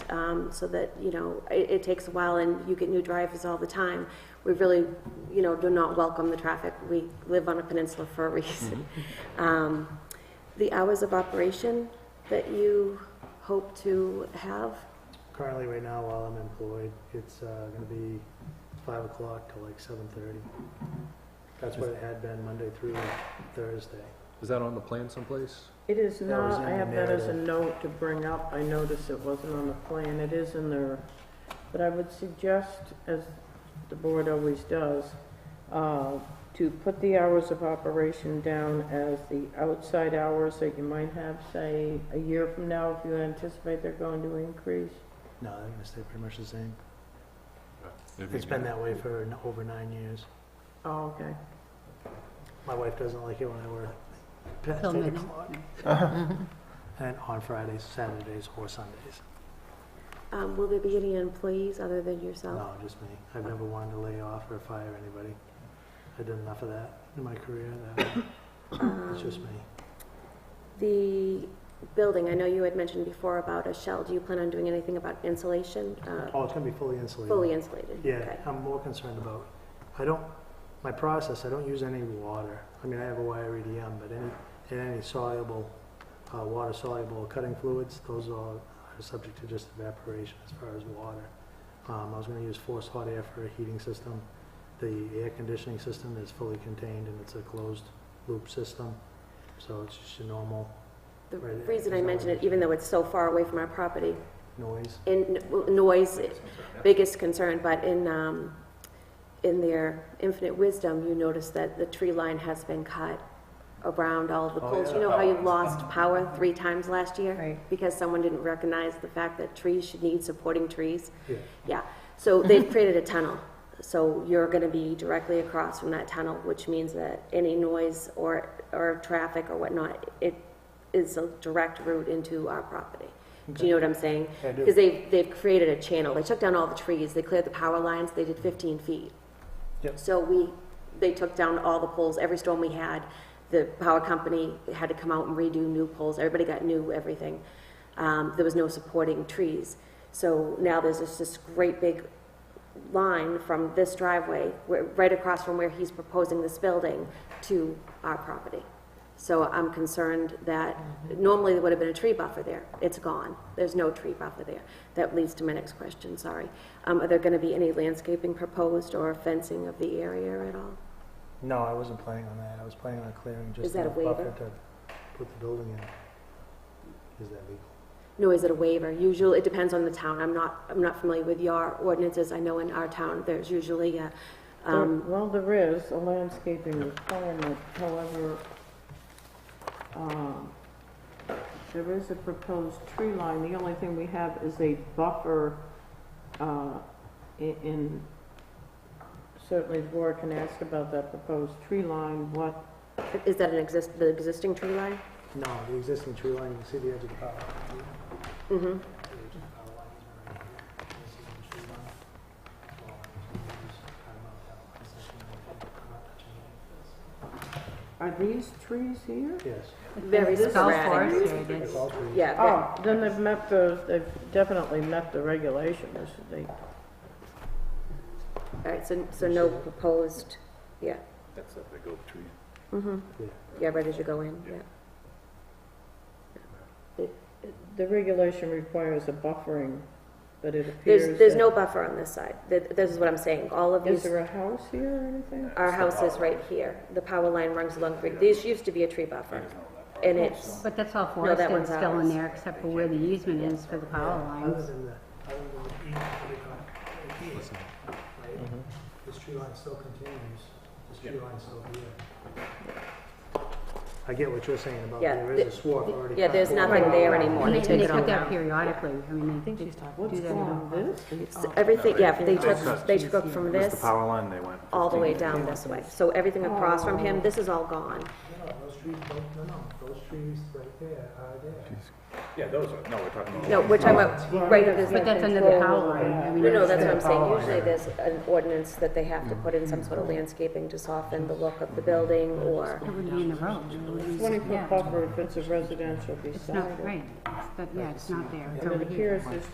um, so that, you know, it, it takes a while and you get new drivers all the time. We really, you know, do not welcome the traffic. We live on a peninsula for a reason. Um, The hours of operation that you hope to have, Currently, right now, while I'm employed, it's uh, gonna be five o'clock till like seven thirty. That's what it had been Monday through Thursday. Is that on the plan someplace? It is That was not, I in have the that as a narrative. note to bring up, I noticed it wasn't on the plan, it is in there. But I would suggest, as the board always does, uh, to put the hours of operation down as the outside hours that you might have, say, a year from now, if you anticipate they're going to increase. No, they're gonna stay pretty much the same. If It's you- been that way for n- over nine years. Oh, okay. My wife doesn't like it when I work past Till eight midnight. o'clock. Mm-hmm. And on Fridays, Saturdays, or Sundays. um, will there be any employees other than yourself? No, just me. I've never wanted to lay off or fire anybody. I did enough of that in my career, that it's just me. Um, The building, I know you had mentioned before about a shell. Do you plan on doing anything about insulation? Uh, Oh, it's gonna be fully insulated. Fully insulated? Yeah, Okay. I'm more concerned about, I don't, my process, I don't use any water. I mean, I have a wire EDM, but any, and any soluble, uh, water soluble cutting fluids, those are, are subject to just evaporation as far as water. Um, I was gonna use forced hot air for a heating system. The air conditioning system is fully contained and it's a closed loop system, so it's just a normal The Right, it- reason I it's not mention it, really- even though it's so far away from our property, noise. in n- noise, biggest concern, but in, um, in their infinite wisdom, you notice that the tree line has been cut around all of the Oh, poles. yeah. You know how you lost power three times last year? Right. Because someone didn't recognize the fact that trees should need supporting trees? Yeah, Yeah, so they've Mm-hmm. created a tunnel. So you're gonna be directly across from that tunnel, which means that any noise or, or traffic or whatnot, it is a direct route into our property. Do you know what I'm saying? I do. Because they've, they've created a channel. They took down all the trees, they cleared the power lines, they did fifteen feet. Yep. So we, they took down all the poles, every storm we had, the power company had to come out and redo new poles, everybody got new everything. Um, there was no supporting trees. So now there's just this great big line from this driveway, where, right across from where he's proposing this building, to our property. So I'm concerned that, normally there would have been a tree buffer there, it's gone, there's no tree buffer there. That leads to my next question, sorry. Um, are there gonna be any landscaping proposed or fencing of the area at all? No, I wasn't planning on that. I was planning on clearing just Is that a enough buffer waiver? to put the building in. Is that legal? No, is it a waiver? Usually, it depends on the town, I'm not, I'm not familiar with your ordinances, I know in our town, there's usually a, There- um, Well, there is a landscaping requirement, however, um, there is a proposed tree line. The only thing we have is a buffer uh, i- in, certainly the board can ask about that proposed tree line, what, is that an exist, the existing tree line? No, the existing tree line, you can see the edge of the power. line. Mm-hmm. The edge of the power line is right here. This is the tree line. Well, I'm just gonna use kind of a power line section right here. I'm not touching any are these trees here? of this. Very This is all sporadic. forest area. Yes, it's all trees. Yeah, ve- Oh, then they've met the, they've definitely met the regulations. They all right, so, so no proposed, yeah, That's a big oak tree. mm-hmm, Yeah. yeah, right as you go in, yeah. The regulation requires a buffering, but it appears There's, there's that- no buffer on this side, Th- this is what I'm saying, all of Is these, there a house here or anything? our house is right here, the power line runs along, Green- this used to be a tree buffer, and it's, But that's all forested one's still in ours. there, except for where the easement is for the power Oh. Other lines. than the, other than the E, what do you call it? The E, right? Mm-hmm. This tree line still continues. This tree line's still here. I get what you're saying about Yeah, there is a the- swath already. yeah, cut there's off. nothing there anymore, And they they, took they it all put that down. periodically, I mean, they Uh, do What's that. on all- this? It's Everything, yeah, they took, cut- they took from It was the this power line they went. all the way down this way, so everything across from him, this is all gone. No, no, those trees, don't- no, no, those trees right there are there. Yeah, those are, no, we're talking about. No, we're talking about, right, there's But that's under the power line, I mean. No, no, that's what I'm it's- saying, usually there's an ordinance that they have to put in some sort of landscaping to soften the look of the building, or, It wouldn't be in the road. it would be- Twenty-foot yeah. buffer if it's a residential It's beside not, it. right, It's- but, yeah, it's not there, it's And it over here. appears there's